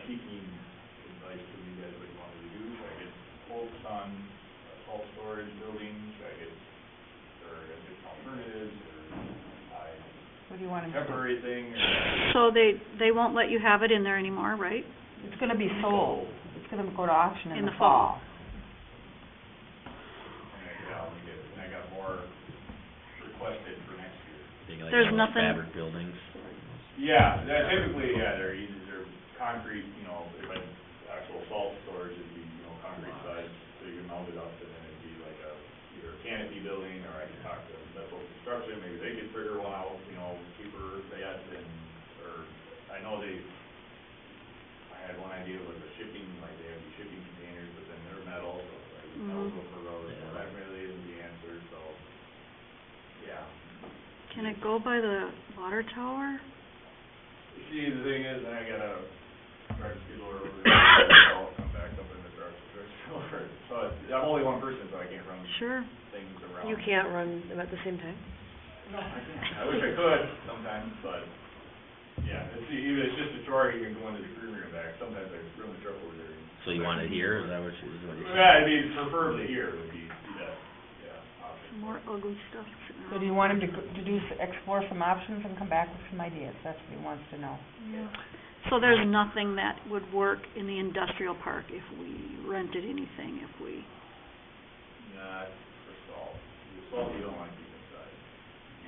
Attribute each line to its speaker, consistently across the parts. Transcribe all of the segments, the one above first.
Speaker 1: uh, storage buildings, I guess, or just alternatives, or
Speaker 2: What do you want
Speaker 1: I,
Speaker 2: him to do?
Speaker 1: temporary thing, or.
Speaker 3: So they, they won't let you have it in there anymore, right?
Speaker 2: It's gonna be sold, it's gonna go to auction in the fall.
Speaker 1: And I got, we get, and I got more requested for next year.
Speaker 4: Being like
Speaker 3: There's
Speaker 4: how many
Speaker 3: nothing-
Speaker 4: fabric buildings.
Speaker 1: Yeah, that typically, yeah, they're easy, they're concrete, you know, but actual salt storage would be, you know, concrete size, so you can mount it up, and then it'd be like a, either a canopy building, or I could talk to Bethel Construction, maybe they could figure one out, you know, cheaper, they had, and, or, I know they, I had one idea with the shipping, like, they have these shipping containers, but then they're metal, so, like, metal's
Speaker 3: Mhm.
Speaker 1: over roads, so that really isn't the answer, so, yeah.
Speaker 3: Can it go by the water tower?
Speaker 1: See, the thing is, I gotta drive a skid loader over there, so I'll come back up in the truck, drive a skid loader. So it's- I'm only one person, so I can't run
Speaker 3: Sure.
Speaker 1: things around.
Speaker 5: You can't run them at the same time?
Speaker 1: No, I can't. I wish I could sometimes, but, yeah, it's, e- even, it's just a chore, you can go into the green room back, sometimes I run the truck over there. and-
Speaker 4: So you want it here, is that what you, is what you
Speaker 1: Yeah, I mean, preferably here would be, be that, yeah, option.
Speaker 3: More ugly stuff sitting around.
Speaker 2: So do you want him to, go- to do, s- explore some options and come back with some ideas? That's what he wants to know.
Speaker 3: Yeah. So there's nothing that would work in the industrial park if we rented anything, if we,
Speaker 1: Not for salt. The Salt you don't want to keep inside.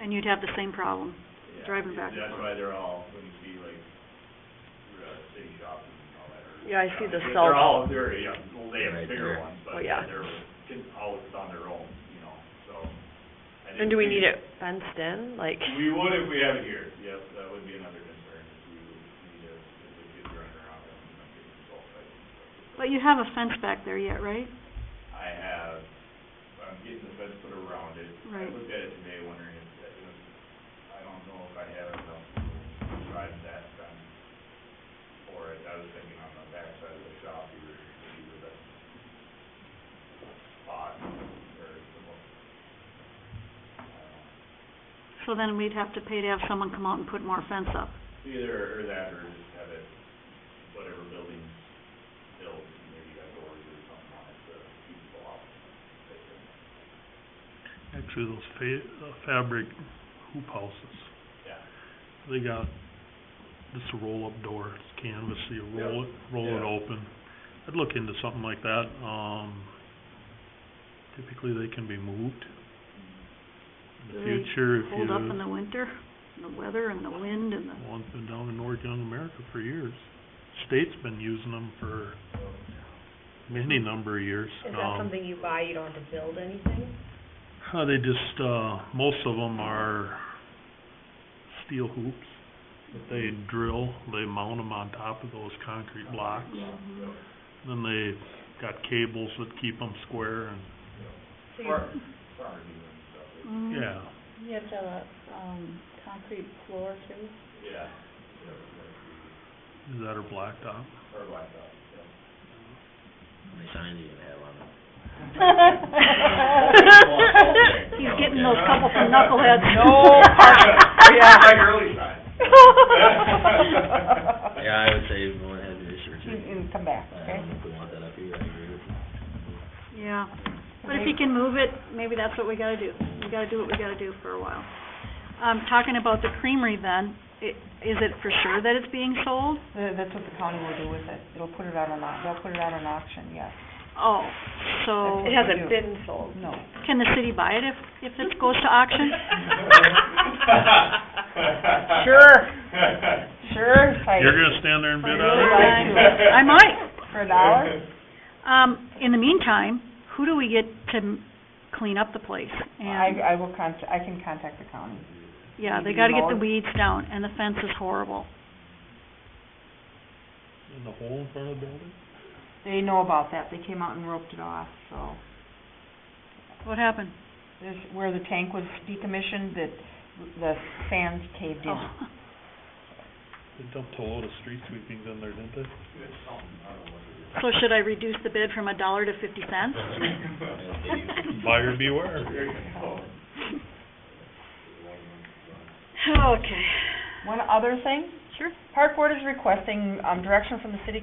Speaker 3: and you'd have the same problem.
Speaker 1: Yeah,
Speaker 3: Driving back and
Speaker 1: That's
Speaker 3: forth.
Speaker 1: why they're all, when you see like, uh, city shops and all that. or-
Speaker 5: Yeah, I see the
Speaker 1: They're-
Speaker 5: salt.
Speaker 1: They're all, they're, yeah, well, they have
Speaker 4: Right
Speaker 1: bigger
Speaker 4: there.
Speaker 1: ones,
Speaker 5: Oh,
Speaker 1: but
Speaker 5: yeah.
Speaker 1: they're just always on their own, you know, so. I
Speaker 5: And
Speaker 1: didn't
Speaker 5: do we
Speaker 1: think-
Speaker 5: need it fenced in, like,
Speaker 1: We would if we have it here, yes, that would be another concern, if we would need a, if the kids running around and not getting salt. I-
Speaker 3: But you have a fence back there yet, right?
Speaker 1: I have, I'm getting the fence put around it. I
Speaker 3: Right.
Speaker 1: looked at it today wondering if, that was I don't know if I have enough to drive that fence for it. I was thinking on the backside of the shop, you were, you were the spot or the most. I don't know.
Speaker 3: So then we'd have to pay to have someone come out and put more fence up.
Speaker 1: Either or that, or just have it, whatever building's built, maybe got doors or something on it to keep people off.
Speaker 6: Actually, those fa- uh, fabric hoop houses,
Speaker 1: Yeah.
Speaker 6: they got just a roll-up door, it's canvas, so you roll it, roll it
Speaker 1: Yeah.
Speaker 6: open. I'd look into something like that, um, typically they can be moved in the
Speaker 3: Do they
Speaker 6: future if you,
Speaker 3: Hold up in the winter, and the weather and the wind and the,
Speaker 6: well, it's been down in North Young America for years. State's been using them for many number of years.
Speaker 7: Is that
Speaker 6: Um,
Speaker 7: something you buy, you don't have to build anything?
Speaker 6: Uh, they just, uh, most of them are steel hoops. that They drill, they mount them on top of those concrete blocks. Then they got cables that keep them square and,
Speaker 7: So you,
Speaker 1: Or, farmer doing stuff.
Speaker 7: Mm-hmm.
Speaker 3: mm,
Speaker 6: yeah.
Speaker 8: You have to have a, um, concrete floor too?
Speaker 1: Yeah.
Speaker 6: Is that are
Speaker 1: Or
Speaker 6: blacktop?
Speaker 1: blacktop, yeah.
Speaker 4: How many signs are you gonna have on them?
Speaker 3: He's getting those couple from knuckleheads.
Speaker 2: No parking,
Speaker 1: Yeah,
Speaker 2: yeah.
Speaker 1: like early sign.
Speaker 4: Yeah, I would say go ahead and research
Speaker 2: And,
Speaker 4: it.
Speaker 3: Mm-hmm.
Speaker 2: and come back,
Speaker 4: I
Speaker 2: okay?
Speaker 4: don't know if we want that up here, I agree with you.
Speaker 3: Yeah, but if he can move it, maybe that's what we gotta do. We gotta do what we gotta do for a while. Um, talking about the creamery then, i- is it for sure that it's being sold?
Speaker 2: Th- That's what the county will do with it. It'll put it out on, au- they'll put it out on auction, yes.
Speaker 3: Oh, so,
Speaker 5: it hasn't been sold?
Speaker 2: No.
Speaker 3: can the city buy it if, if it goes to auction?
Speaker 2: Sure. Sure, if I,
Speaker 6: You're gonna stand there and bid on it?
Speaker 3: I might.
Speaker 2: for an hour?
Speaker 3: Um, in the meantime, who do we get to m- clean up the place? And,
Speaker 2: I, I will contact, I can contact the county.
Speaker 3: yeah, they
Speaker 2: maybe
Speaker 3: gotta get the
Speaker 2: mowed?
Speaker 3: weeds down, and the fence is horrible.
Speaker 6: In the hole in front of the building?
Speaker 2: They know about that. They came out and roped it off, so.
Speaker 3: What happened?
Speaker 2: This, where the tank was decommissioned, that the sand caved in.
Speaker 3: Oh,
Speaker 6: They dumped a load of street sweepings in there, didn't they?
Speaker 3: so should I reduce the bid from a dollar to fifty cents?
Speaker 6: Buyer beware.
Speaker 3: Okay.
Speaker 2: One other thing,
Speaker 3: Sure.
Speaker 2: Park Board is requesting, um, direction from the city